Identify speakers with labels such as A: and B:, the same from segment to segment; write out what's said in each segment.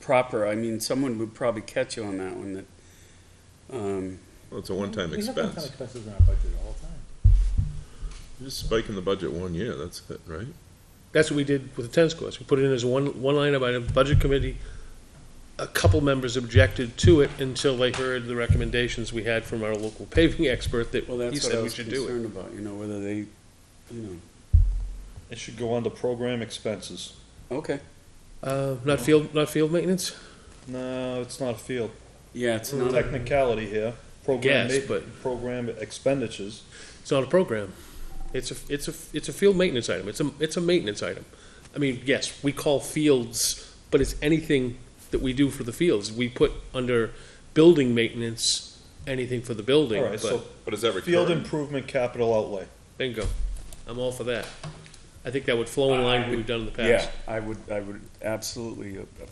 A: proper, I mean, someone would probably catch you on that one that, um,
B: Well, it's a one-time
C: We have one-time
B: expense.
C: expenses in our budget all the time.
B: You're just spiking the budget one year, that's it, right?
D: That's what we did with the tennis courts. We put it in as one, one line item, budget committee. A couple members objected to it until they heard the recommendations we had from our local paving expert that
A: well,
D: he
A: that's what I
D: said we
A: was
D: should do it.
A: concerned about, you know, whether they, you know,
E: It should go under program expenses.
A: okay,
D: Uh, not field, not field maintenance?
E: No, it's not a field.
A: yeah, it's not, a-
E: Technicality here. Program
D: Yes,
E: ma-
D: but
E: Program expenditures.
D: it's not a program. It's a, it's a, it's a field maintenance item. It's a, it's a maintenance item. I mean, yes, we call fields, but it's anything that we do for the fields. We put under building maintenance, anything for the building,
E: All right,
D: but.
E: so
B: But is that
E: field
B: recurring?
E: improvement capital outlay.
D: Bingo. I'm all for that. I think that would flow in line with what we've done in the
A: yeah,
D: past.
A: I would, I would absolutely uh, uh,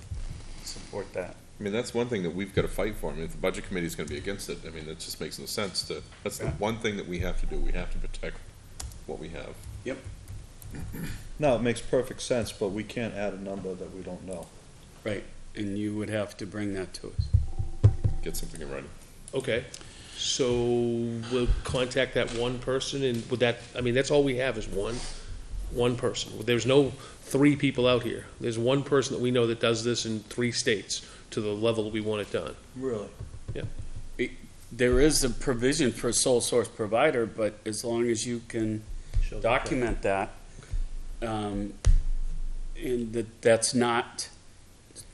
A: support that.
B: I mean, that's one thing that we've gotta fight for. I mean, if the budget committee's gonna be against it, I mean, that just makes no sense to, that's the
A: Yeah.
B: one thing that we have to do. We have to protect what we have.
E: No, it makes perfect sense, but we can't add a number that we don't know.
A: Right, and you would have to bring that to us.
B: Get something in writing.
D: Okay. So we'll contact that one person and would that, I mean, that's all we have is one, one person. There's no three people out here. There's one person that we know that does this in three states to the level we want it done.
E: Really?
A: There is a provision for sole source provider, but as long as you can document that, um, and that that's not,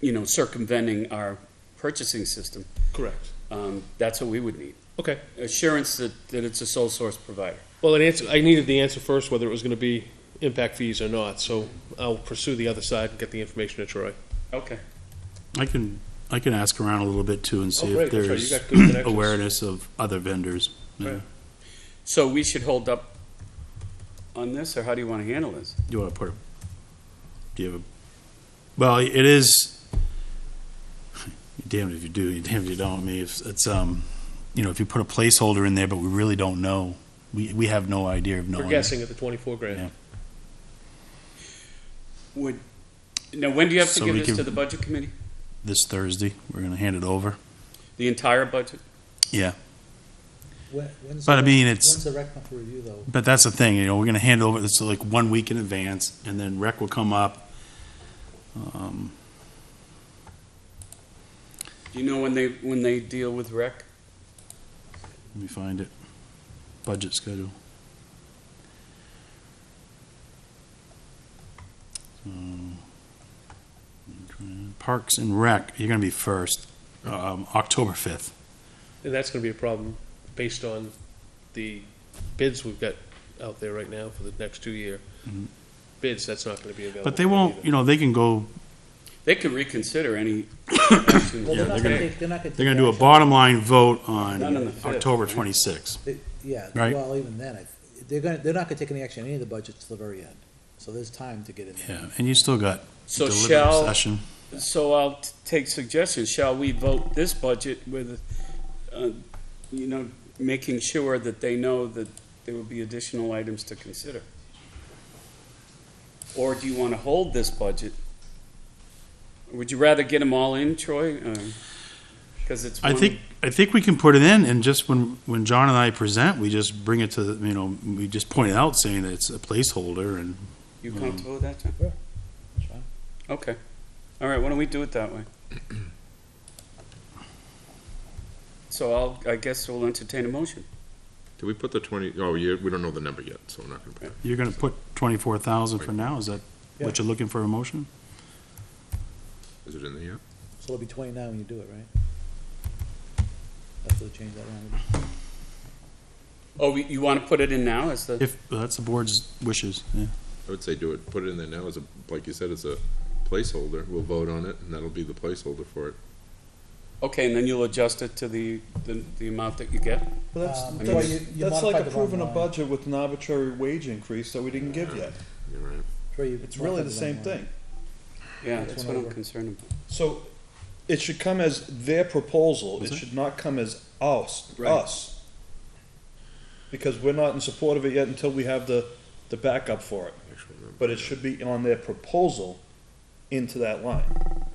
A: you know, circumventing our purchasing system,
D: Correct.
A: um, that's what we would need.
D: Okay.
A: Assurance that, that it's a sole source provider.
D: Well, an answer, I needed the answer first whether it was gonna be impact fees or not, so I'll pursue the other side and get the information to Troy.
A: Okay.
F: I can, I can ask around a little bit too and see
D: Oh,
F: if
D: great, that's right, you
F: there's
D: got good connections.
F: awareness of other vendors. Yeah.
D: Right.
A: So we should hold up on this, or how do you want to handle this?
F: Do you want to put, a- do you have a, well, it is, you're damned if you do, you're damned if you don't. I mean, if it's, um, you know, if you put a placeholder in there, but we really don't know, we, we have no idea of
D: We're
F: knowing.
D: guessing at the twenty-four grand.
F: Yeah.
A: Would, now, when do you have to
F: So
A: give
F: we
A: this
F: can-
A: to the budget committee?
F: This Thursday, we're gonna hand it over.
A: The entire budget?
C: When- when's
F: But I
C: the-
F: mean, it's-
C: When's the rec comp review though?
F: But that's the thing, you know, we're gonna hand over, this like one week in advance, and then rec will come up. Um,
A: Do you know when they, when they deal with rec?
F: Let me find it. Budget schedule. So, Parks and Rec, you're gonna be first, um, October fifth.
D: And that's gonna be a problem based on the bids we've got out there right now for the next two year.
F: Mhm.
D: Bids, that's not gonna be available.
F: But they won't, you know, they can go,
A: They could reconsider any. action.
F: Yeah,
C: Well, they're not
F: they're
C: gonna
F: gonna-
C: take, they're not gonna.
F: they're gonna
C: take
F: do a
C: action.
F: bottom line vote on
A: Not on the fifth,
F: October
A: right?
F: twenty-sixth.
C: They- Yeah,
F: Right.
C: well, even then, I- they're gonna, they're not gonna take any action on any of the budgets till the very end. So there's time to get in there.
F: Yeah, and you still got
A: So
F: deliberative
A: shall,
F: session.
A: so I'll t- take suggestions, shall we vote this budget with, uh, you know, making sure that they know that there will be additional items to consider? Or do you want to hold this budget? Would you rather get them all in, Troy? Because it's
F: I
A: one-
F: think, I think we can put it in, and just when, when John and I present, we just bring it to, the- you know, we just point it out saying that it's a placeholder and
A: You comfortable with that, John?
C: That's fine.
A: Okay. All right, why don't we do it that way? So I'll, I guess we'll entertain a motion.
B: Do we put the twenty, oh, you, we don't know the number yet, so we're not gonna put it.
F: You're gonna put twenty-four thousand for now, is that what you're looking for a motion?
B: Is it in there yet?
C: So it'll be twenty-nine when you do it, right? That's what changed that language.
A: Oh, we- you want to put it in now as the,
F: If, that's the board's wishes, yeah.
B: I would say do it, put it in there now as a, like you said, as a placeholder. We'll vote on it and that'll be the placeholder for it.
A: okay, and then you'll adjust it to the, the, the amount that you get?
E: But that's,
C: Um,
A: I mean,
E: that's,
C: you- you
E: that's
C: modified
E: like
C: the bottom
E: approving a
C: line.
E: budget with an arbitrary wage increase that we didn't give yet.
B: You're right.
C: Troy, you
E: It's really
C: modified
E: the same
C: wrong line.
E: thing.
A: Yeah,
C: That's
A: that's
C: one
A: what I'm
C: over.
A: concerned about.
E: So it should come as their proposal. It
F: Mhm.
E: should not come as us,
A: Right.
E: us. Because we're not in support of it yet until we have the, the backup for it.
B: Actual number.
E: But it should be on their proposal into that line.